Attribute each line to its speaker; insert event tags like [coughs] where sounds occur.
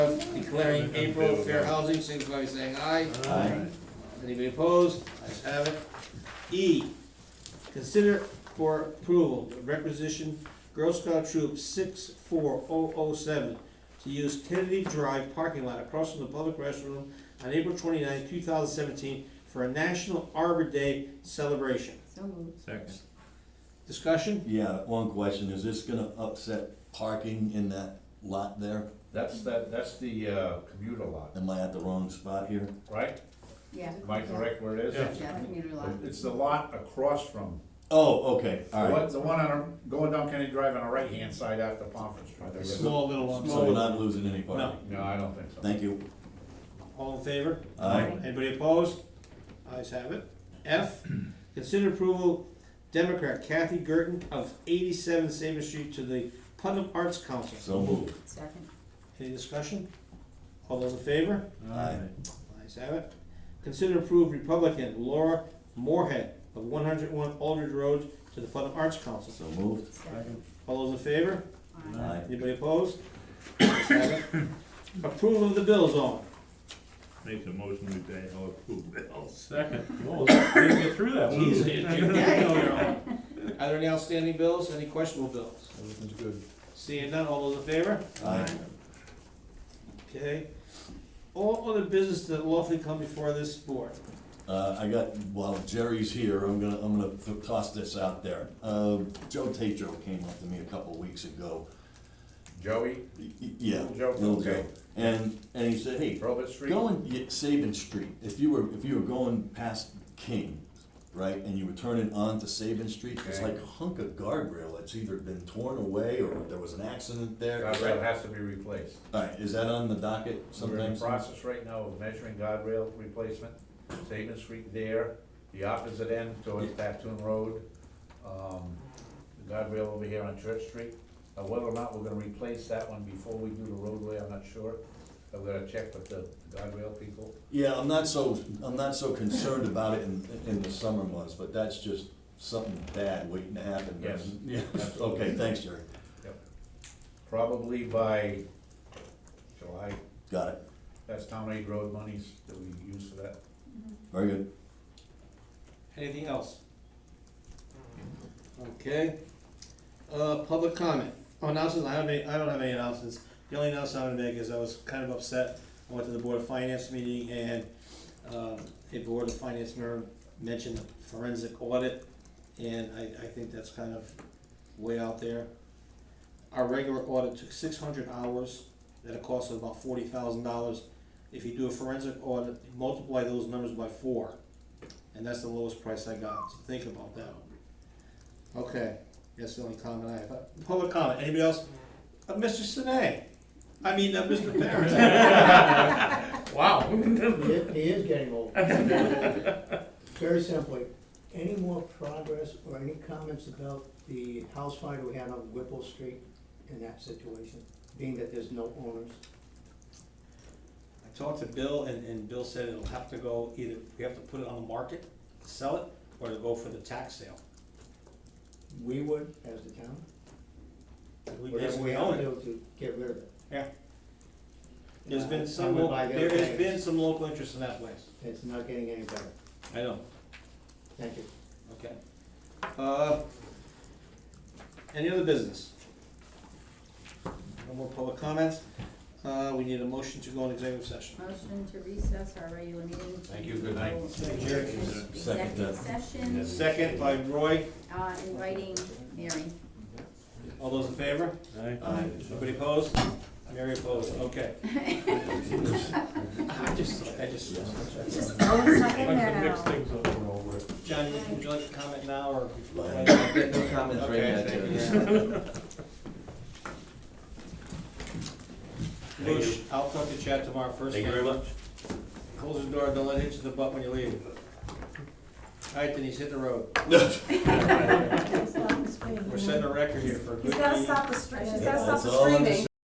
Speaker 1: declaring April fair housing, signify by saying aye.
Speaker 2: Aye.
Speaker 1: Anybody opposed? Ayes have it. E, consider for approval requisition Girl Scout Troop six four oh oh seven to use Kennedy Drive parking lot across from the public restroom on April 29, thousand seventeen for a National Arbor Day celebration.
Speaker 3: So moved.
Speaker 4: Second.
Speaker 1: Discussion?
Speaker 2: Yeah, one question, is this gonna upset parking in that lot there?
Speaker 5: That's the, that's the uh, commuter lot,
Speaker 2: Am I at the wrong spot here?
Speaker 5: right?
Speaker 3: Yeah.
Speaker 5: Am I correct where it
Speaker 4: Yeah.
Speaker 5: is?
Speaker 3: Yeah, commuter lot.
Speaker 5: It's the lot across from,
Speaker 2: Oh, okay,
Speaker 5: the
Speaker 2: alright,
Speaker 5: one, the one on, the- going down Kennedy Drive on the right-hand side after Pomfret Street.
Speaker 1: Small little one.
Speaker 2: so we're not losing any parking.
Speaker 5: No, I don't think so.
Speaker 2: Thank you.
Speaker 1: All in favor?
Speaker 2: Aye.
Speaker 1: Anybody opposed? Ayes have it. F, consider approval, Democrat Kathy Gurton of eighty-seven Sabre Street to the Putnam Arts Council.
Speaker 2: So moved.
Speaker 3: Second.
Speaker 1: Any discussion? All those in favor?
Speaker 2: Aye.
Speaker 1: Ayes have it. Consider approve Republican Laura Moorhead of one hundred one Aldridge Road to the Putnam Arts Council.
Speaker 2: So moved.
Speaker 3: Second.
Speaker 1: All those in favor?
Speaker 3: Aye.
Speaker 2: Aye.
Speaker 1: Anybody opposed? Ayes have it. [coughs] Approval of the bills on.
Speaker 4: Make a motion to pay all approved bills. Second. Well, we didn't get through that one. [laughs]
Speaker 1: Easy. Are there any outstanding bills, any questionable bills?
Speaker 5: Everything's good.
Speaker 1: Seeing none, all those in favor?
Speaker 2: Aye.
Speaker 1: Okay. All other business that lawfully come before this board.
Speaker 2: Uh, I got, while Jerry's here, I'm gonna, I'm gonna th- toss this out there. Uh, Joe Tatro came up to me a couple weeks ago.
Speaker 5: Joey,
Speaker 2: Y- y- Yeah,
Speaker 5: Little Joe,
Speaker 2: little Joe.
Speaker 5: okay.
Speaker 2: And, and he said, hey,
Speaker 5: Robert Street,
Speaker 2: Going, yeah, Saban Street, if you were, if you were going past King, right, and you were turning onto Saban Street, it's
Speaker 5: Okay.
Speaker 2: like a hunk of guardrail that's either been torn away or there was an accident there. Is
Speaker 5: guardrail
Speaker 2: that-
Speaker 5: has to be replaced.
Speaker 2: Alright, is that on the docket
Speaker 5: We're in the
Speaker 2: sometimes?
Speaker 5: process right now of measuring guardrail replacement, Saban Street there, the opposite end towards Tattoon Road, um, the guardrail over here on Church Street. Now, whether or not we're gonna replace that one before we do the roadway, I'm not sure. I'm gonna check with the guardrail people.
Speaker 2: Yeah, I'm not so, I'm not so concerned about it in, in the summer months, but that's just something bad waiting to happen.
Speaker 5: Yes.
Speaker 2: [laughs] Yeah, okay, thanks, Jerry,
Speaker 5: Probably by July,
Speaker 2: got it,
Speaker 5: that's town aid road monies that we use for that.
Speaker 2: very good.
Speaker 1: Anything else? Mm-hmm. Okay. Uh, public comment. Oh, announcements, I don't have any, I don't have any announcements. The only announcement I'm gonna make is I was kind of upset. I went to the Board of Finance meeting and, uh, a Board of Finance member mentioned forensic audit. And I, I think that's kind of way out there. Our regular audit took six hundred hours at a cost of about forty thousand dollars. If you do a forensic audit, multiply those numbers by four. And that's the lowest price I got, so think about that. Okay, that's the only comment I have. Uh, Public comment, anybody else? Uh, Mr. Sinay, I mean, uh, Mr.
Speaker 6: [laughs]
Speaker 1: Barrett. Wow.
Speaker 6: He is- he is getting old. Very simply, any more progress or any comments about the house fire we had on Whipple Street in that situation, being that there's no owners?
Speaker 1: I talked to Bill and, and Bill said it'll have to go either, we have to put it on the market, sell it, or to go for the tax sale.
Speaker 6: We would, as the town,
Speaker 1: We
Speaker 6: whatever we
Speaker 1: basically
Speaker 6: have
Speaker 1: own
Speaker 6: to
Speaker 1: it.
Speaker 6: do to get rid of it.
Speaker 1: Yeah. There's
Speaker 6: Uh,
Speaker 1: been
Speaker 6: I
Speaker 1: some,
Speaker 6: would
Speaker 1: local-
Speaker 6: buy the
Speaker 1: there has been
Speaker 6: other things.
Speaker 1: some local interest in that place.
Speaker 6: It's not getting any better.
Speaker 1: I know.
Speaker 6: Thank you.
Speaker 1: Okay. Uh, Any other business? No more public comments. Uh, We need a motion to go in executive session.
Speaker 3: Motion to recess our regular meeting.
Speaker 5: Thank you, good night.
Speaker 1: Thank you.
Speaker 2: Second, uh,
Speaker 3: Executive session,
Speaker 1: Second by Roy.
Speaker 3: uh, inviting Mary.
Speaker 1: All those in favor?
Speaker 2: Aye.
Speaker 1: Anybody opposed? Mary opposed, okay. I just, I just,
Speaker 3: Just throw stuff in there now.
Speaker 1: John, would you like to comment now or?
Speaker 2: No comments
Speaker 1: Okay, Bush, I'll talk to Chad tomorrow first. Thank you very much. Close the door, don't let it hit you in the butt when you leave. All right, then he's hit the road. We're setting a record here for a good
Speaker 7: He's gotta
Speaker 1: meeting.
Speaker 7: stop the, str- she's gotta
Speaker 2: That's
Speaker 7: stop the
Speaker 2: all I'm
Speaker 7: screaming.